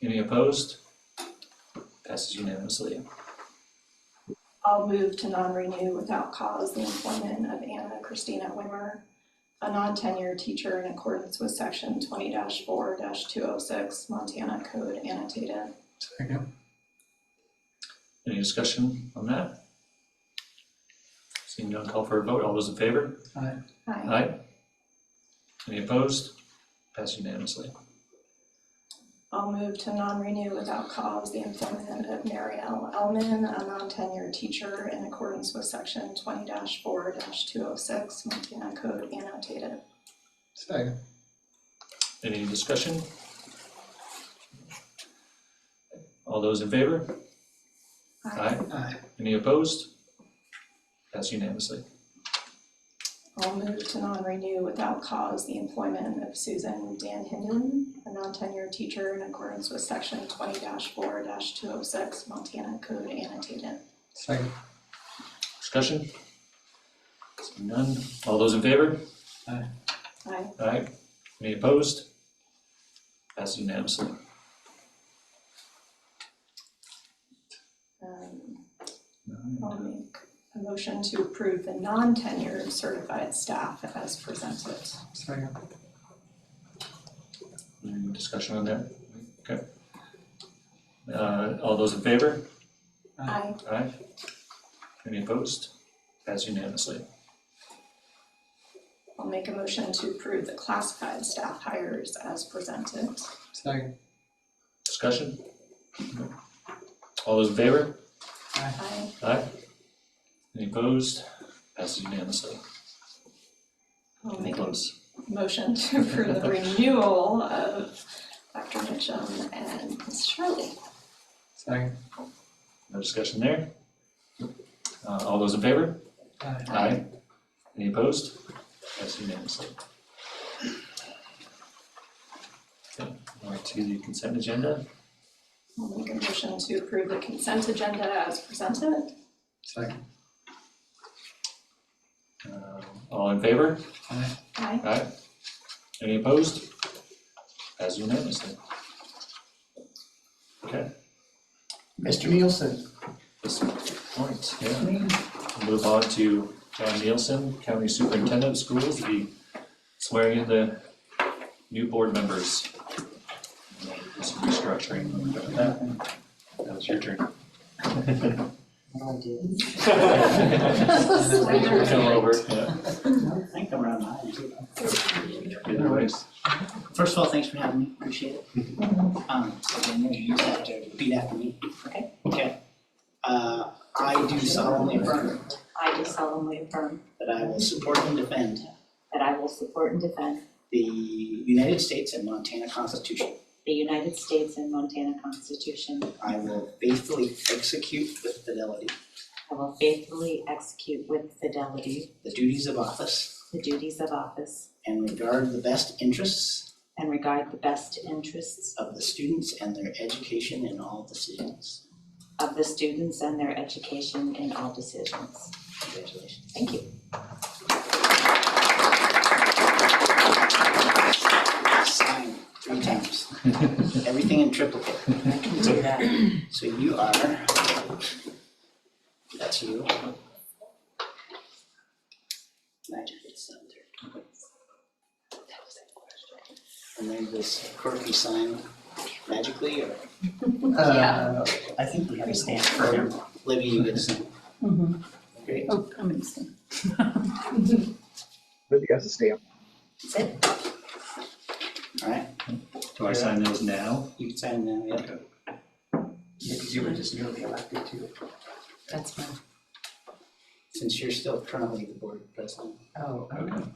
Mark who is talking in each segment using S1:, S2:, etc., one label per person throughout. S1: Any opposed? Passes unanimously.
S2: I'll move to non-renew without cause the employment of Anna Christina Wimmer, a non-tenured teacher in accordance with section twenty four two oh six Montana Code annotated.
S3: Second.
S1: Any discussion on that? Seeing none, call for a vote. All those in favor?
S2: Aye.
S1: Aye. Any opposed? Passes unanimously.
S2: I'll move to non-renew without cause the employment of Mary L. Elman, a non-tenured teacher in accordance with section twenty four two oh six Montana Code annotated.
S3: Second.
S1: Any discussion? All those in favor? Aye.
S3: Aye.
S1: Any opposed? Passes unanimously.
S2: I'll move to non-renew without cause the employment of Susan Dan Hinton, a non-tenured teacher in accordance with section twenty four two oh six Montana Code annotated.
S3: Second.
S1: Discussion? Seeing none. All those in favor?
S2: Aye.
S1: Aye. Any opposed? Passes unanimously.
S2: Um, I'll make a motion to approve the non-tenured certified staff as presented.
S3: Second.
S1: Any discussion on that? Okay. Uh, all those in favor?
S2: Aye.
S1: Aye. Any opposed? Passes unanimously.
S2: I'll make a motion to approve the classified staff hires as presented.
S3: Second.
S1: Discussion? All those in favor?
S2: Aye.
S1: Aye. Any opposed? Passes unanimously.
S2: I'll
S1: Any
S2: make a
S1: opposed?
S2: motion to approve the renewal of Dr. Mitchum and Ms. Shirley.
S3: Second.
S1: No discussion there? Uh, all those in favor?
S3: Aye.
S1: Aye. Any opposed? Passes unanimously. Okay, now to the consent agenda.
S2: I'll make a motion to approve the consent agenda as presented.
S3: Second.
S1: Uh, all in favor?
S3: Aye.
S2: Aye.
S1: Aye. Any opposed? As unanimously. Okay,
S4: Mr. Nielsen.
S1: this point, yeah. We'll Move on to John Nielsen, County Superintendent of Schools, the swearing in the new board members. Some restructuring, but that, that was your turn.
S4: Oh, I did.
S1: Come over, yeah,
S4: I think I'm around nine. too.
S1: either way.
S4: First of all, thanks for having me, appreciate it. Um, so then you just have to repeat after me. Okay. Okay. Uh, I do solemnly affirm
S5: I do solemnly affirm
S4: that I will support and defend
S5: that I will support and defend
S4: the United States and Montana Constitution.
S5: the United States and Montana Constitution.
S4: I will faithfully execute with fidelity
S5: I will faithfully execute with fidelity
S4: the duties of office
S5: the duties of office
S4: and regard the best interests
S5: and regard the best interests
S4: of the students and their education in all decisions.
S5: of the students and their education in all decisions.
S4: Congratulations.
S5: Thank you.
S4: sign three times. Everything in triplicate.
S5: I can do that.
S4: So you are, that's you. Imagine it's up there. And then this quirky sign magically, or
S3: Uh,
S6: Yeah.
S4: I think we have a stamp
S6: Stamp.
S4: for Libby, you get a stamp.
S6: Mhm.
S4: Great.
S6: Oh, I'm in this thing.
S7: But you guys stay up.
S5: That's it.
S4: All right,
S1: Do I sign those now?
S4: you can sign now, yeah.
S8: Because you were just newly elected to.
S6: That's fine.
S4: Since you're still currently the board president.
S8: Oh,
S1: Okay.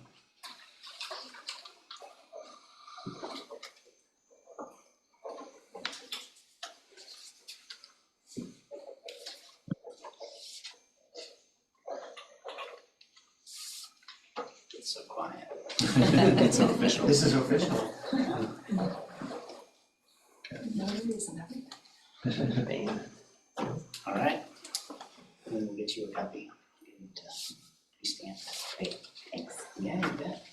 S4: It's so quiet.
S1: It's not official.
S8: this is official.
S2: Notaries and everything.
S4: All right. And then we'll get you a copy. and uh, You stamp that. Great, thanks. Yeah, you bet.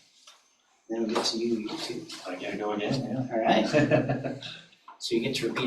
S4: Then we'll get to you, you too.
S1: I gotta go again, yeah.
S4: All right, so you get to repeat